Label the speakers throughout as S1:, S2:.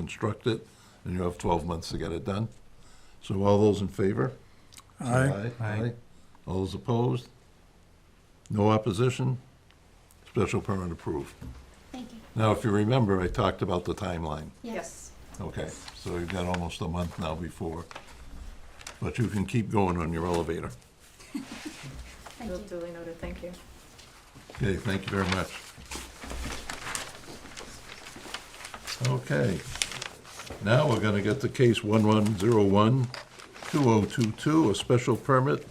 S1: construct it, and you have 12 months to get it done. So all those in favor?
S2: Aye.
S3: Aye.
S1: All those opposed? No opposition? Special permit approved.
S4: Thank you.
S1: Now, if you remember, I talked about the timeline.
S4: Yes.
S1: Okay, so you've got almost a month now before, but you can keep going on your elevator.
S4: Thank you.
S5: Duly noted, thank you.
S1: Okay, thank you very much. Okay. Now we're gonna get to case 1101-2022, a special permit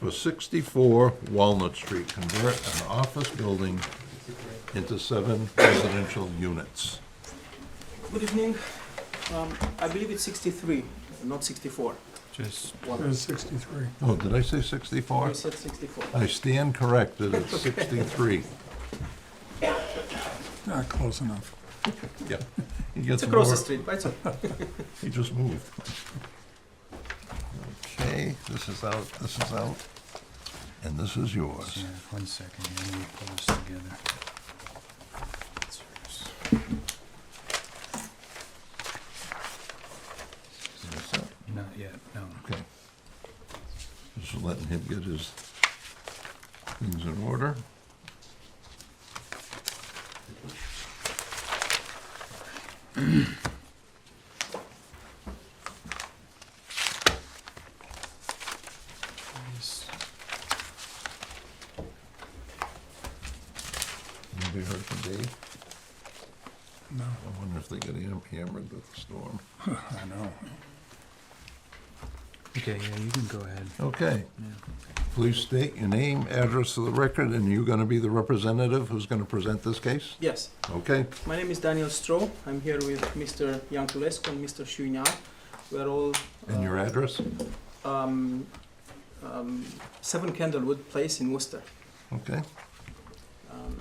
S1: for 64 Walnut Street, convert an office building into seven residential units.
S6: Good evening. Um, I believe it's 63, not 64.
S3: Just,
S2: It was 63.
S1: Oh, did I say 64?
S6: You said 64.
S1: I stand corrected, it's 63.
S2: Not close enough.
S1: Yeah. He gets
S6: It's across
S1: more-
S6: the street, but it's okay.
S1: He just moved. Okay, this is out, this is out, and this is yours.
S3: yeah, one second, here, let me pull this together.
S1: That's it.
S3: Not yet, no.
S1: Okay. Just letting him get his things in order. Anybody heard from Dave?
S2: No,
S1: I wonder if they got ham- hammered with the storm.
S2: I know.
S3: Okay, yeah, you can go ahead.
S1: Okay.
S3: Yeah.
S1: Please state your name, address of the record, and you're going to be the representative who's going to present this case?
S6: Yes.
S1: Okay,
S6: My name is Daniel Stroh. I'm here with Mr. Yankulescu and Mr. Shuinar. We're all.
S1: and your
S6: uh,
S1: address?
S6: Um, um, 7 Candlewood Place in Worcester.
S1: Okay,
S6: Um,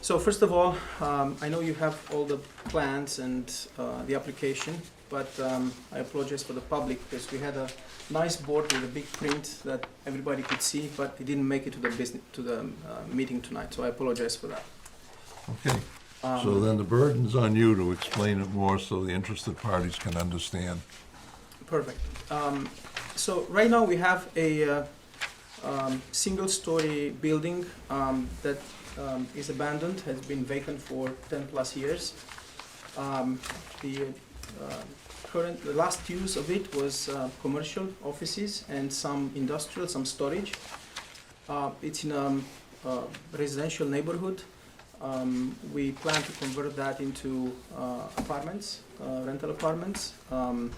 S6: So first of all, um, I know you have all the plans and uh, the application, but um, I apologize for the public because we had a nice board with a big print that everybody could see, but it didn't make it to the business, to the um, uh, meeting tonight, so I apologize for that.
S1: okay.
S6: Um,
S1: So then the burden's on you to explain it more so the interested parties can understand.
S6: Perfect. Um, so right now we have a uh, um, single-story building um, that um, is abandoned, has been vacant for 10 plus years. Um, the uh, current, the last use of it was uh, commercial offices and some industrial, some storage. Uh, it's in a uh, residential neighborhood. Um, we plan to convert that into uh, apartments, uh, rental apartments. Um,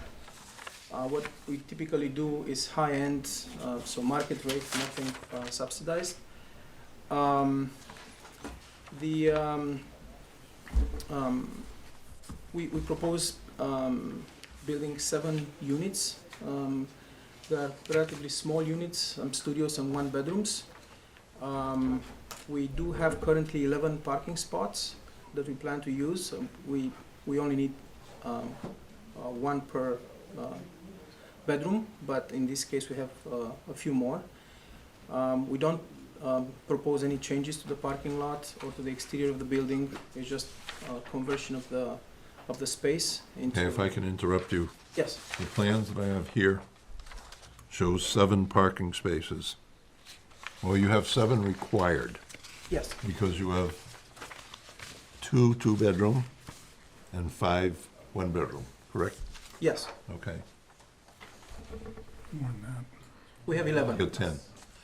S6: uh, What we typically do is high-end, uh, so market rate, nothing uh, subsidized. Um, The, um, um, we we propose um, building seven units. Um, They are relatively small units, um, studios and one bedrooms. Um, We do have currently 11 parking spots that we plan to use. Um, We we only need um, uh, one per uh, bedroom, but in this case, we have uh, a few more. Um, We don't um, propose any changes to the parking lot or to the exterior of the building. It's just uh, conversion of the, of the space into.
S1: Okay, if I can interrupt you,
S6: Yes,
S1: the plans that I have here shows seven parking spaces. Well, you have seven required
S6: yes,
S1: because you have two two-bedroom and five one-bedroom, correct?
S6: yes.
S1: Okay.
S2: More than
S6: We have
S1: Got
S6: 11.
S1: ten.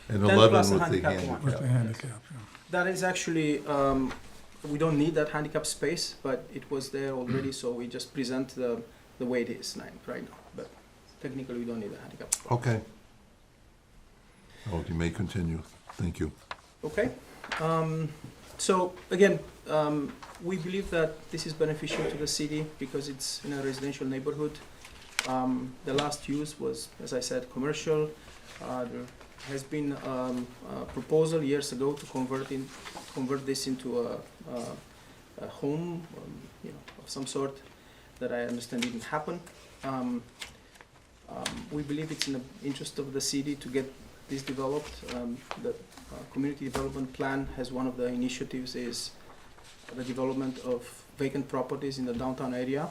S1: And
S6: 10
S1: eleven
S6: plus a
S1: with the
S6: handicap one.
S2: that, with the
S1: handicap.
S2: handicap, yeah.
S6: That is actually, um, we don't need that handicap space, but it was there already, so we just present the, the way it is now- right now. But technically, we don't need a handicap. spot.
S1: Okay. Oh, you may continue. Thank you.
S6: Okay. Um, so again, um, we believe that this is beneficial to the city because it's in a residential neighborhood. Um, the last use was, as I said, commercial. Uh, there has been um, a proposal years ago to convert in, convert this into a, a, a home, um, you know, of some sort that I understand didn't happen. Um, um, we believe it's in the interest of the city to get this developed. Um, the uh, community development plan has one of the initiatives is the development of vacant properties in the downtown area.